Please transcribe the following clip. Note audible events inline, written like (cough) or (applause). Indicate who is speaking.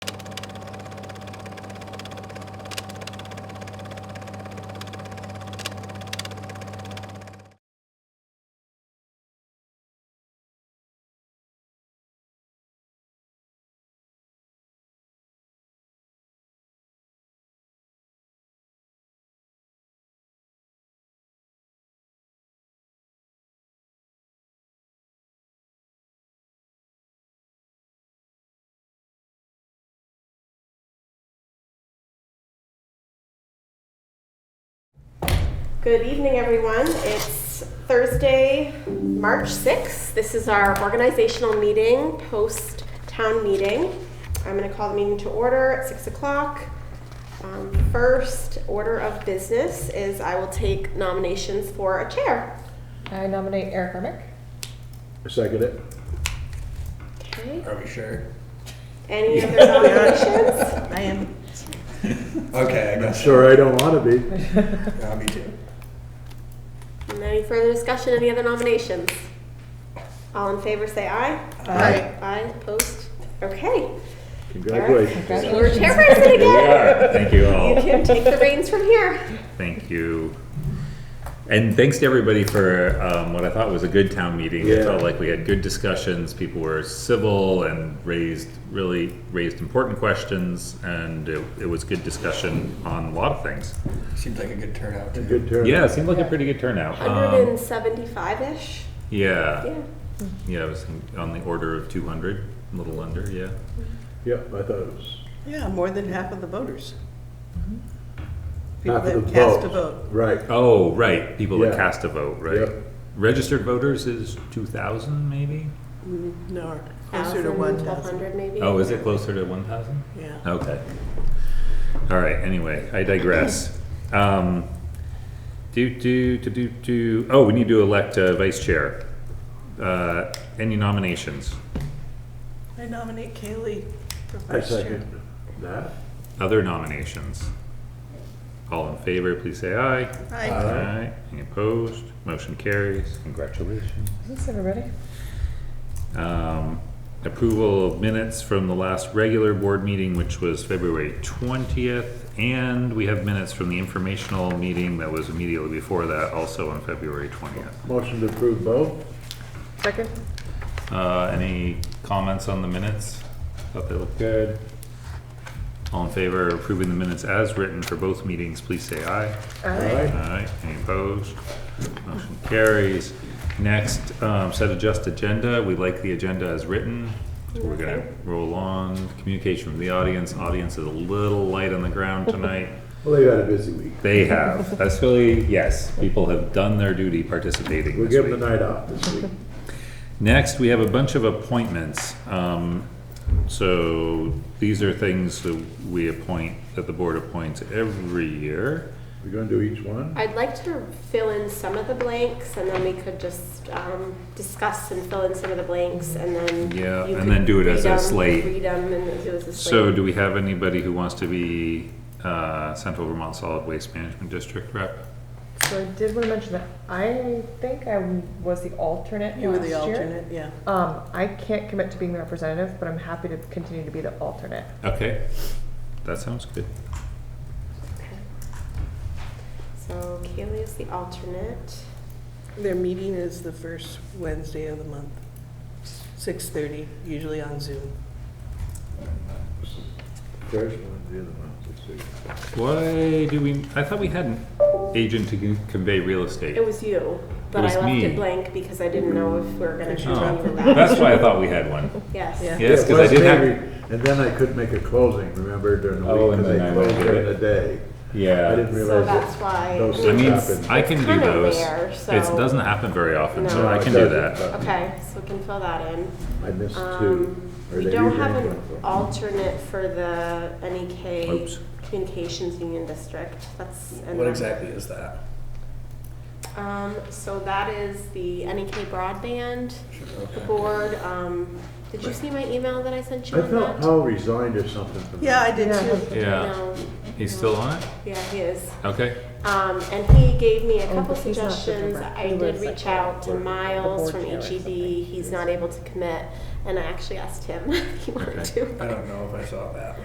Speaker 1: Good evening, everyone. It's Thursday, March 6th. This is our organizational meeting, post-town meeting. I'm going to call the meeting to order at 6 o'clock. Um, First order of business is I will take nominations for a chair.
Speaker 2: I nominate Eric Remick.
Speaker 3: Second it.
Speaker 1: Okay.
Speaker 4: Are
Speaker 3: (laughs)
Speaker 4: we sure?
Speaker 1: Any other nominations?
Speaker 5: Oh, (laughs) I am.
Speaker 4: Okay, I
Speaker 3: I'm
Speaker 4: guess.
Speaker 3: sure I don't want to be.
Speaker 4: Yeah, me too.
Speaker 1: And Any further discussion, any other nominations? All in favor, say aye.
Speaker 5: uh,
Speaker 2: Aye.
Speaker 1: Aye, opposed? Okay.
Speaker 3: Congratulations.
Speaker 1: You're
Speaker 2: Congratulations.
Speaker 1: chairperson
Speaker 6: Here we
Speaker 1: again.
Speaker 6: are. Thank you
Speaker 1: You
Speaker 5: Oh.
Speaker 6: all.
Speaker 1: can take the reins from here.
Speaker 6: Thank you. And thanks to everybody for um, what I thought was a good town meeting. It
Speaker 3: Yeah.
Speaker 6: felt like we had good discussions. People were civil and raised, really raised important questions. And it, it was good discussion on a lot of things.
Speaker 4: Seems like a good turnout too.
Speaker 3: Good turn.
Speaker 6: Yeah, it seemed like a pretty good turnout. Um,
Speaker 1: 175-ish.
Speaker 6: Yeah,
Speaker 5: uh,
Speaker 1: Yeah.
Speaker 6: yeah, it was on the order of 200, a little under, yeah.
Speaker 3: Yep, I thought it was
Speaker 5: Yeah, more than half of the voters. People
Speaker 3: half of
Speaker 5: that
Speaker 3: the
Speaker 5: cast a
Speaker 3: vote.
Speaker 5: vote.
Speaker 3: Right.
Speaker 6: Oh, right, people that
Speaker 3: Yeah.
Speaker 6: cast a vote, right?
Speaker 3: Yep.
Speaker 6: Registered voters is 2,000 maybe?
Speaker 5: Mm, No, closer to one thousand,
Speaker 1: 1,200 maybe.
Speaker 6: Oh, is it closer to 1,000?
Speaker 5: yeah.
Speaker 6: Okay. All right, anyway, I digress. Um, do, do, do, do, do, oh, we need to elect a vice chair. Uh, any nominations?
Speaker 5: I nominate Kaylee for
Speaker 3: I
Speaker 5: vice chair.
Speaker 3: second that.
Speaker 6: Other nominations? All in favor, please say aye.
Speaker 5: Aye.
Speaker 6: Aye. Any opposed? Motion carries. Congratulations.
Speaker 2: Thanks, everybody.
Speaker 6: Um, approval of minutes from the last regular board meeting, which was February twentieth, and we have minutes from the informational meeting that was immediately before that, also on February twentieth.
Speaker 3: Motion to approve both?
Speaker 2: Second?
Speaker 6: Uh, any comments on the minutes? Thought they looked good. All in favor of approving the minutes as written for both meetings, please say aye.
Speaker 3: Aye.
Speaker 6: Aye, any opposed? Motion carries. Next, um, set adjust agenda, we like the agenda as written, so we're gonna roll on. Communication from the audience, audience is a little light on the ground tonight.
Speaker 3: Well, they've had a busy week.
Speaker 6: They have, that's really, yes, people have done their duty participating
Speaker 3: We'll
Speaker 6: this
Speaker 3: give them
Speaker 6: week.
Speaker 3: the night off this
Speaker 5: (laughs)
Speaker 3: week.
Speaker 6: Next, we have a bunch of appointments. Um, So these are things that we appoint, that the board appoints every year.
Speaker 3: We're gonna do each one?
Speaker 1: I'd like to fill in some of the blanks and then we could just um, discuss and fill in some of the blanks and then.
Speaker 6: Yeah,
Speaker 1: you
Speaker 6: and
Speaker 1: could
Speaker 6: then do it as a
Speaker 1: read 'em-
Speaker 6: slate.
Speaker 1: Read them and do it as a slate.
Speaker 6: So do we have anybody who wants to be uh, Central Vermont Solid Waste Management District rep?
Speaker 2: So I did want to mention that I think I was the alternate
Speaker 5: You were the
Speaker 2: last year.
Speaker 5: alternate, yeah.
Speaker 2: Um, I can't commit to being the representative, but I'm happy to continue to be the alternate.
Speaker 6: Okay, that sounds good.
Speaker 1: Okay. So Kaylee is the alternate.
Speaker 5: Their meeting is the first Wednesday of the month, six thirty, usually on Zoom.
Speaker 3: First one, the other one, let's see.
Speaker 6: Why do we, I thought we had an agent to con- convey real estate.
Speaker 1: It was you, but
Speaker 6: was
Speaker 1: I left
Speaker 6: me.
Speaker 1: it blank because I didn't know if we were going to continue
Speaker 6: Oh,
Speaker 1: with that.
Speaker 6: that's why I thought we had one.
Speaker 1: Yes.
Speaker 5: Yeah.
Speaker 6: Yes,
Speaker 3: Yeah,
Speaker 6: because I
Speaker 3: West
Speaker 6: did have,
Speaker 3: Newbury, And then I couldn't make a closing, remember, during the
Speaker 6: Oh,
Speaker 3: week,
Speaker 6: and
Speaker 3: because they
Speaker 6: then I
Speaker 3: closed
Speaker 6: went
Speaker 3: during
Speaker 6: there.
Speaker 3: the day. I
Speaker 6: yeah.
Speaker 3: didn't
Speaker 1: So
Speaker 3: realize
Speaker 1: that's
Speaker 3: that.
Speaker 1: why.
Speaker 3: those
Speaker 6: I mean,
Speaker 3: Happened.
Speaker 6: I can do
Speaker 1: Kinda
Speaker 6: those.
Speaker 1: rare,
Speaker 6: It
Speaker 1: so-
Speaker 6: doesn't happen very often, so
Speaker 1: No.
Speaker 6: I
Speaker 3: No,
Speaker 6: can
Speaker 3: it
Speaker 6: do
Speaker 3: doesn't,
Speaker 6: that.
Speaker 3: but
Speaker 1: Okay, so we can fill that in.
Speaker 3: I missed two.
Speaker 1: Um,
Speaker 3: Or
Speaker 1: We
Speaker 3: they
Speaker 1: don't
Speaker 3: usually
Speaker 1: have an
Speaker 3: go for-
Speaker 1: alternate for the NEK
Speaker 6: Oops.
Speaker 1: Communications Union District. That's. and
Speaker 4: What
Speaker 1: that-
Speaker 4: exactly is that?
Speaker 1: Um, so that is the NEK Broadband
Speaker 4: Okay.
Speaker 1: Board. Um, did you see my email that I sent you
Speaker 3: I
Speaker 1: on
Speaker 3: felt
Speaker 1: that?
Speaker 3: Paul resigned or something from
Speaker 5: Um, Yeah,
Speaker 3: that.
Speaker 5: I did
Speaker 2: Yeah.
Speaker 5: too.
Speaker 6: Yeah,
Speaker 1: No.
Speaker 6: he's still on it?
Speaker 1: Yeah, he is.
Speaker 6: Okay,
Speaker 1: Um, and he gave me a
Speaker 2: Oh,
Speaker 1: couple
Speaker 2: but he's not the
Speaker 1: suggestions.
Speaker 2: direct-
Speaker 1: I
Speaker 2: he
Speaker 1: did
Speaker 2: was like
Speaker 1: reach out to
Speaker 2: the
Speaker 1: Miles
Speaker 2: board
Speaker 1: from E
Speaker 2: chair or
Speaker 1: HEB.
Speaker 2: something.
Speaker 1: He's not able to commit. And I actually asked him (laughs) if he wanted
Speaker 6: Okay.
Speaker 1: to.
Speaker 4: I don't know if I saw that.